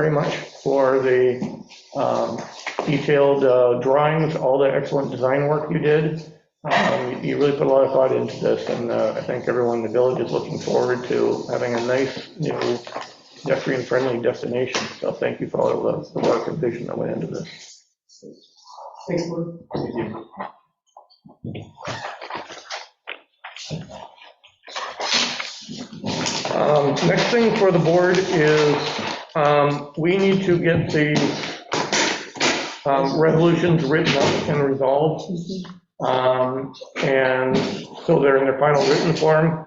very much for the um, detailed uh, drawings, all the excellent design work you did. Um, You really put a lot of thought into this, and uh, I think everyone in the village is looking forward to having a nice, new pedestrian-friendly destination. So thank you for all of the the work and vision that went into this. Thanks, Lou. Um, Next thing for the board is, um, we need to get the um, resolutions written up and resolved. Um, And so they're in their final written form.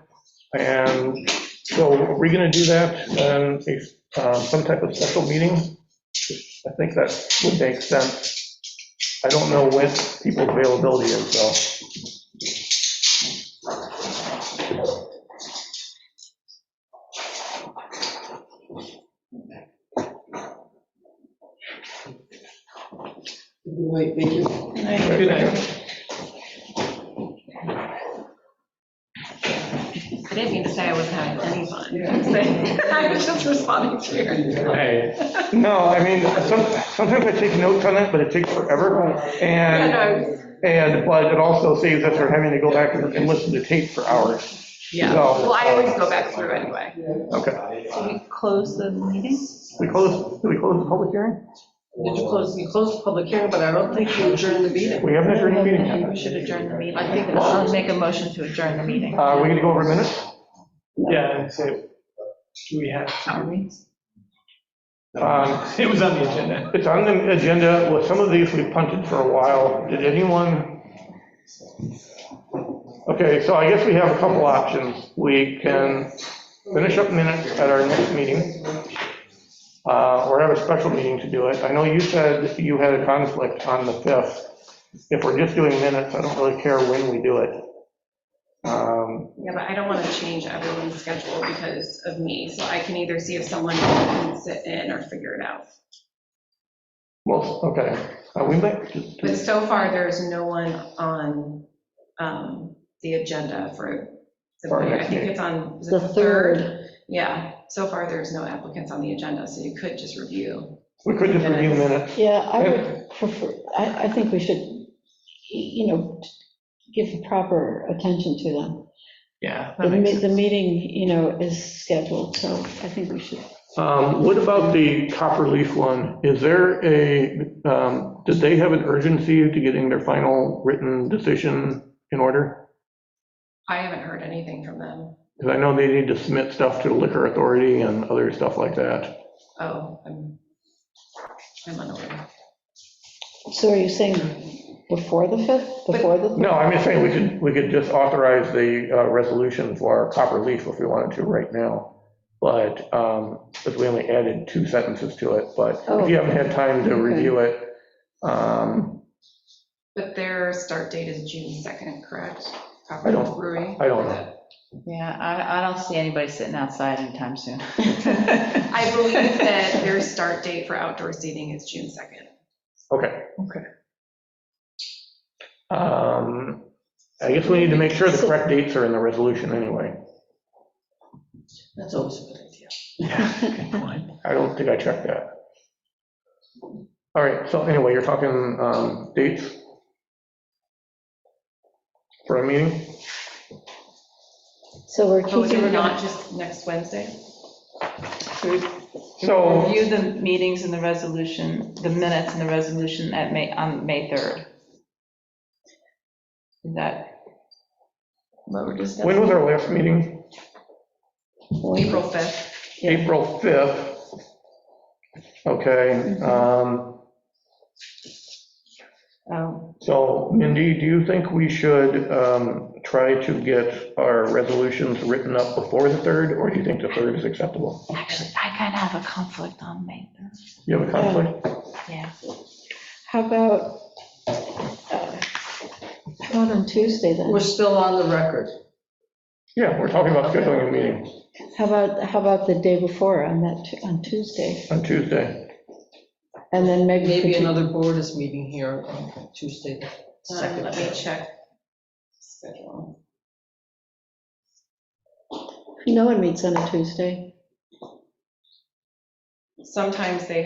And so are we going to do that in a, um, some type of special meeting? I think that would make sense. I don't know when people's availability is, so. Good night, thank you. Good night. I didn't mean to say I wasn't having any fun. I was just responding to your. No, I mean, some- sometimes I take notes on it, but it takes forever. Yeah, no, And, I was- and, but it also saves us from having to go back and and listen to tape for hours. Yeah, No. well, I always go back through anyway. Okay. So we close the meeting? We close, do we close the public hearing? Did you close, you closed the public hearing, but I don't think you adjourned the meeting. We haven't adjourned the meeting We yet. should adjourn the meeting. I think it I'll was. make a motion to adjourn the meeting. Uh, Are we going to go over minutes? Yeah, and so, do we have, Are we? Um, it was on the agenda. It's on the agenda. With some of these, we punted for a while. Did anyone? Okay, so I guess we have a couple options. We can finish up minutes at our next meeting, uh, or have a special meeting to do it. I know you said you had a conflict on the 5th. If we're just doing minutes, I don't really care when we do it. Um, Yeah, but I don't want to change everyone's schedule because of me, so I can either see if someone can sit in or figure it out. Most, okay, Uh, we might, just- But so far, there's no one on um, the agenda for the, For our I next think meeting. it's on, is it The third, Yeah, so far, there's no applicants on the agenda, so you could just review. we could just review minutes. yeah, I would prefer, I, I think we should, you know, give proper attention to them. Yeah. The me- the meeting, you know, is scheduled, so I think we should. Um, What about the copper leaf one? Is there a, um, did they have an urgency to getting their final written decision in order? I haven't heard anything from them. Because I know they need to submit stuff to the liquor authority and other stuff like that. Oh, I'm, I'm unaware. So are you saying before the 5th, before the? No, I'm just saying we could, we could just authorize the uh, resolution for copper leaf if we wanted to right now. But, because we only added two sentences to it, but if you haven't had time to Oh, okay. review it, um, But their start date is June 2nd, correct? I don't- Brewery? I don't know. Yeah, I, I don't see anybody sitting outside anytime soon. I believe that their start date for outdoor seating is June 2nd. Okay. Okay. Um, I guess we need to make sure the correct dates are in the resolution anyway. That's always a good idea. I don't think I checked that. All right, so anyway, you're talking um, dates for a meeting? So we're So is keeping. it not just next Wednesday? So, Review the meetings and the resolution, the minutes and the resolution at May, on May 3rd. Is that what we're discussing? when was our last meeting? April 5th. April 5th. Okay, Mm-hmm. um, Oh, so Mindy, do you think we should um, try to get our resolutions written up before the 3rd, or do you think the 3rd is acceptable? actually, I kind of have a conflict on May 3rd. You have a conflict? Yeah. How about, uh, how about on Tuesday then? We're still on the record. Yeah, we're talking about scheduling a meeting How about, how about the day before on that, Tu- on Tuesday? on Tuesday. And then maybe. Maybe for Tu- another board is meeting here on Tuesday, the Um, second. Let me check. schedule. No one meets on a Tuesday. sometimes they